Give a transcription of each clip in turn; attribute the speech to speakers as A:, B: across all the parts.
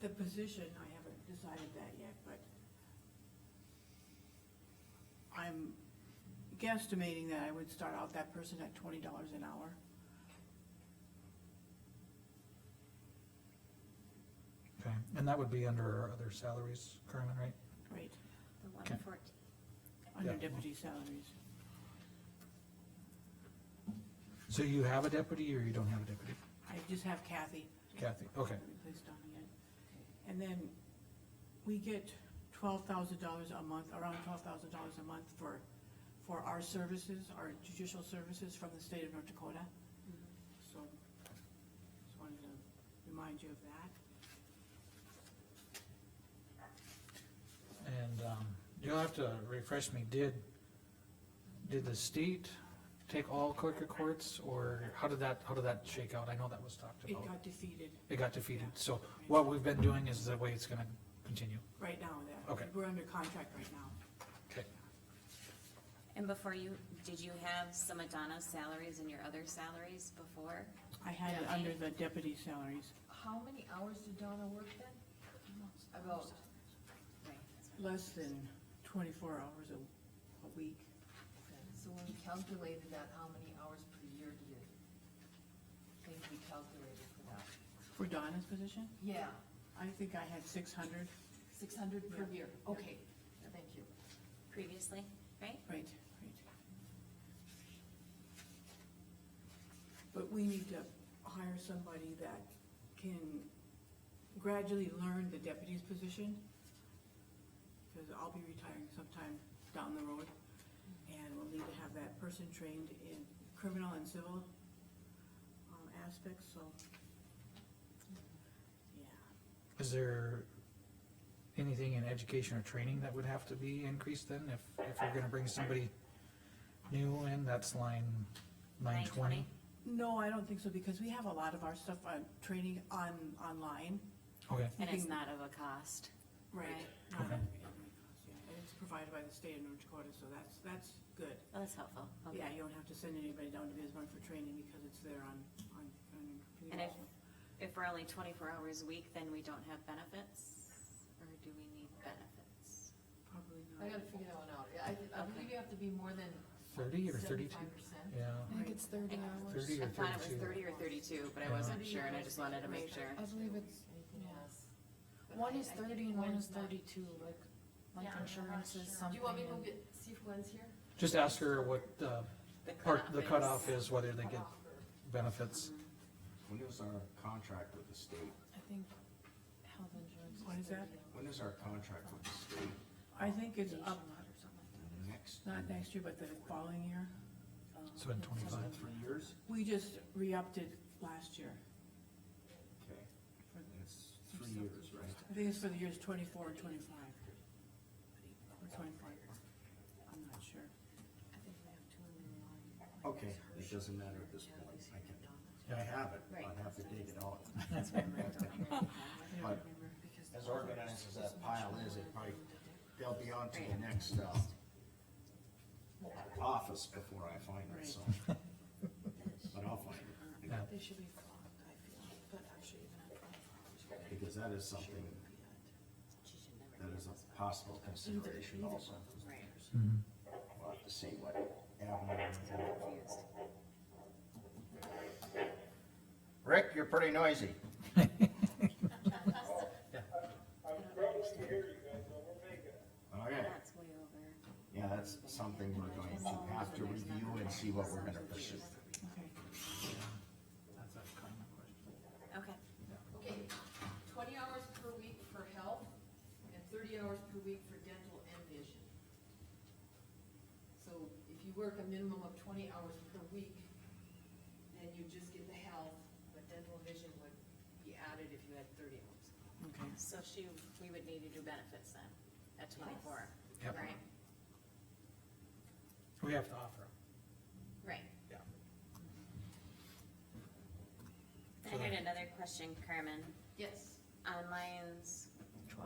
A: the position, I haven't decided that yet, but I'm guesstimating that I would start out that person at twenty dollars an hour.
B: Okay, and that would be under our other salaries, Carmen, right?
A: Right.
C: The one
B: Okay.
C: fourteen.
A: Under
B: Yeah.
A: deputy salaries.
B: So you have a deputy or you don't have a deputy?
A: I just have Kathy.
B: Kathy, okay,
A: Replaced Donna yet. And then we get twelve thousand dollars a month, around twelve thousand dollars a month for, for our services, our judicial services from the state of North Dakota. So, just wanted to remind you of that.
B: and, um, you'll have to refresh me, did, did the state take all Quaker courts, or how did that, how did that shake out? I know that was talked
A: It
B: about.
A: got defeated
B: It got defeated, so what we've been doing is the way it's gonna continue,
A: right now, that.
B: Okay.
A: We're under contract right now.
B: okay?
C: And before you, did you have some of Donna's salaries and your other salaries before?
A: I had it under the deputy salaries,
D: How many hours did Donna work then? About,
C: Right, that's what-
A: less than twenty-four hours a, a week.
D: so when we calculated that, how many hours per year do you think we calculated for that?
A: For Donna's position,
D: Yeah,
A: I think I had six hundred,
D: six hundred per
A: Yeah.
D: year, okay, thank you.
C: Previously, right?
A: right, right. But we need to hire somebody that can gradually learn the deputy's position. Cause I'll be retiring sometime down the road, and we'll need to have that person trained in criminal and civil, um, aspects, so. Yeah.
B: Is there anything in education or training that would have to be increased then, if, if you're gonna bring somebody new in, that's line nine twenty?
A: No, I don't think so, because we have a lot of our stuff on training on, online.
B: Okay,
C: And it's
A: Mhm.
C: not of a cost. Right.
A: Not-
B: Okay.
A: And it's provided by the state of North Dakota, so that's, that's good.
C: Oh, that's helpful,
A: Yeah,
C: okay.
A: you don't have to send anybody down to Bismarck for training because it's there on, on, on your computer.
C: And if,
A: so.
C: if we're only twenty-four hours a week, then we don't have benefits? Or do we need benefits?
A: Probably
D: I
A: not.
D: gotta figure that one out, I, I believe you have to be more than
B: thirty or thirty-two?
D: seventy-five percent.
B: Yeah,
E: I think it's thirty hours.
B: thirty
C: I
B: or
C: thought it was
B: thirty-two.
C: thirty or thirty-two, but I
B: Yeah.
C: wasn't sure, and I just wanted to make sure.
E: I believe it's-
D: Anything else? But
E: One
D: I-
E: is
D: I think
E: thirty and one is
D: not.
E: thirty-two, like, like
F: Yeah, I'm not
E: insurance is
F: sure.
D: Do
E: something.
D: you want me to go
E: and-
D: get, see if Gwen's here?
B: Just ask her what, uh, part, the cutoff is, whether they get
D: Cutoff or-
B: benefits.
G: When is our contract with the state?
E: I think health insurance is
A: What is
E: thirty
A: that?
E: hours.
G: When is our contract with the state?
A: I think it's up,
G: Next?
A: not next year, but the following year.
B: So in twenty-five,
G: Three years?
A: We just re-upped it last year.
G: Okay. It's three years, right?
A: I think it's for the years twenty-four and twenty-five. Or twenty-four. I'm not sure.
G: Okay, it doesn't matter at this point. I can, I
B: Yeah.
G: have it,
C: Right.
G: I'd have to dig it out.
A: I don't
G: But
A: remember.
G: as organized as that pile is, it probably, they'll be on to the next, uh, office before I find it, so. But I'll find it.
B: Yeah.
E: They should be flocked, I feel, but actually even at twenty-four hours. you
G: Because that is something,
E: could be at-
G: that is a possible consideration also.
C: Right.
B: Mm-hmm.
G: We'll have to see what avenue. Rick, you're pretty noisy.
H: I'm struggling to hear you guys, but we're making it.
G: Okay,
C: That's way over.
G: yeah, that's something we're going to have to review and see what we're gonna pursue.
A: Okay.
B: That's a common question.
C: Okay,
D: Okay, twenty hours per week for health and thirty hours per week for dental and vision. So if you work a minimum of twenty hours per week, then you just get the health, but dental and vision would be added if you had thirty hours.
A: Okay.
C: so she, we would need to do benefits then, at twenty-four,
B: Yep,
C: right?
B: we have to offer them.
C: Right.
B: Yeah.
C: I had another question, Carmen,
D: Yes.
C: on lines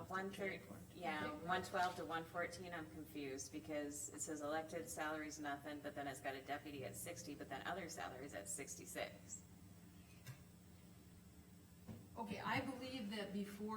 C: one thirty, yeah,
D: Okay.
C: one twelve to one fourteen, I'm confused, because it says elected salaries nothing, but then it's got a deputy at sixty, but then other salaries at sixty-six.
D: Okay, I believe that before